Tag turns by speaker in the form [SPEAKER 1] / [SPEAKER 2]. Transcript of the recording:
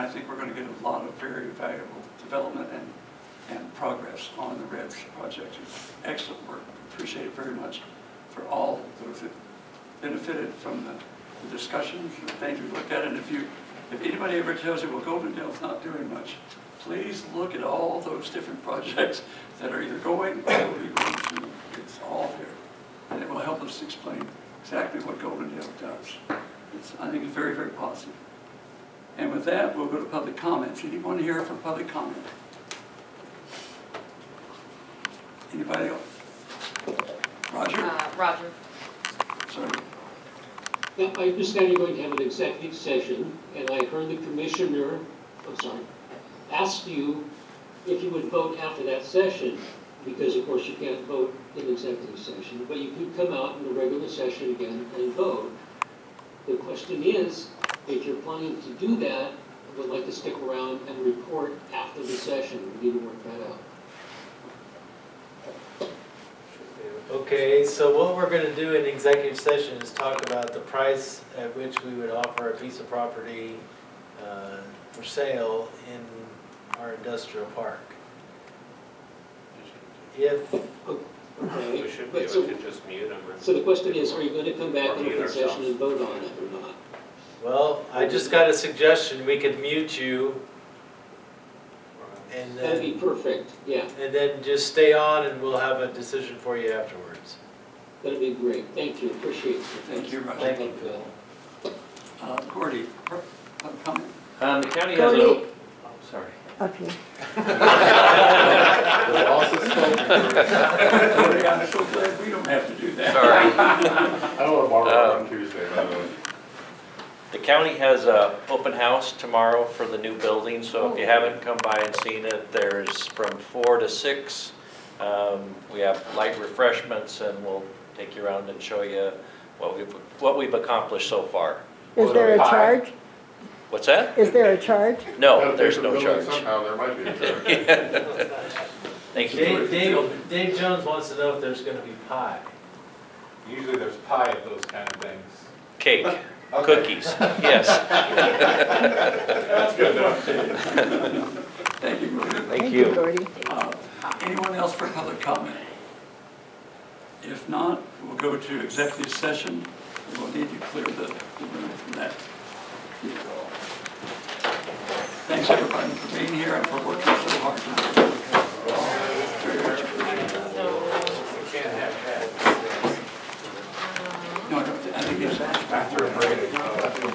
[SPEAKER 1] think we're going to get a lot of very valuable development and, and progress on the REDS project. Excellent work, appreciate it very much for all those that benefited from the the discussions, the things we looked at, and if you, if anybody ever tells you, well, Golden Dale's not doing much, please look at all those different projects that are either going or will be going to. It's all there, and it will help us explain exactly what Golden Dale does. It's, I think it's very, very positive. And with that, we'll go to public comments. Anyone here for public comment? Anybody else? Roger?
[SPEAKER 2] Uh, Roger.
[SPEAKER 1] Sorry.
[SPEAKER 3] Now, I understand you're going to have an executive session, and I heard the commissioner, I'm sorry, asked you if you would vote after that session, because of course you can't vote in executive session, but you could come out in the regular session again and vote. The question is, if you're planning to do that, I would like to stick around and report after the session, we need to work that out.
[SPEAKER 4] Okay, so what we're gonna do in executive session is talk about the price at which we would offer a piece of property uh, for sale in our industrial park. If,
[SPEAKER 3] Okay?
[SPEAKER 5] We should be
[SPEAKER 3] But
[SPEAKER 5] able
[SPEAKER 3] so-
[SPEAKER 5] to just mute them. or-
[SPEAKER 3] So the question is, are you going to come back in
[SPEAKER 5] Or mute
[SPEAKER 3] open session
[SPEAKER 5] ourselves.
[SPEAKER 3] and vote on it or not?
[SPEAKER 4] well, I just got a suggestion, we could mute you and
[SPEAKER 3] That'd be
[SPEAKER 4] then,
[SPEAKER 3] perfect, yeah.
[SPEAKER 4] and then just stay on and we'll have a decision for you afterwards.
[SPEAKER 3] That'd be great, thank you, appreciate it.
[SPEAKER 1] Thank you, Roger.
[SPEAKER 4] Thank you, Bill.
[SPEAKER 1] Uh, Gordy, per- public comment?
[SPEAKER 6] Um, the county has an,
[SPEAKER 7] Cody.
[SPEAKER 6] op- oh, sorry.
[SPEAKER 7] Up here.
[SPEAKER 1] Gordy, I'm so glad we don't have to do that.
[SPEAKER 6] Sorry.
[SPEAKER 8] I don't want to borrow
[SPEAKER 9] Um,
[SPEAKER 8] on Tuesday, by the way.
[SPEAKER 6] The county has a open house tomorrow for the new building, so if
[SPEAKER 4] Oh.
[SPEAKER 6] you haven't come by and seen it, there's from four to six. Um, we have light refreshments and we'll take you around and show you what we've, what we've accomplished so far.
[SPEAKER 7] Is there a charge?
[SPEAKER 6] What's that?
[SPEAKER 7] Is there a charge?
[SPEAKER 9] oh,
[SPEAKER 6] No, there's no
[SPEAKER 8] Gotta pay for the building
[SPEAKER 6] charge.
[SPEAKER 8] Somehow, there might be a charge.
[SPEAKER 6] Thank you.
[SPEAKER 4] Dave, Dave, Dave Jones wants to know if there's gonna be pie.
[SPEAKER 9] Usually there's pie of those kind of things.
[SPEAKER 6] Cake, cookies, yes.
[SPEAKER 8] That's good enough.
[SPEAKER 1] Thank you, Gordy.
[SPEAKER 7] Thank you. Gordy.
[SPEAKER 1] Uh, Anyone else for public comment? If not, we'll go to executive session. We'll need to clear the the room from that. Thanks, everybody, for being here and for working so hard tonight. Very much appreciated. No, I don't thi- I think it's... After a break.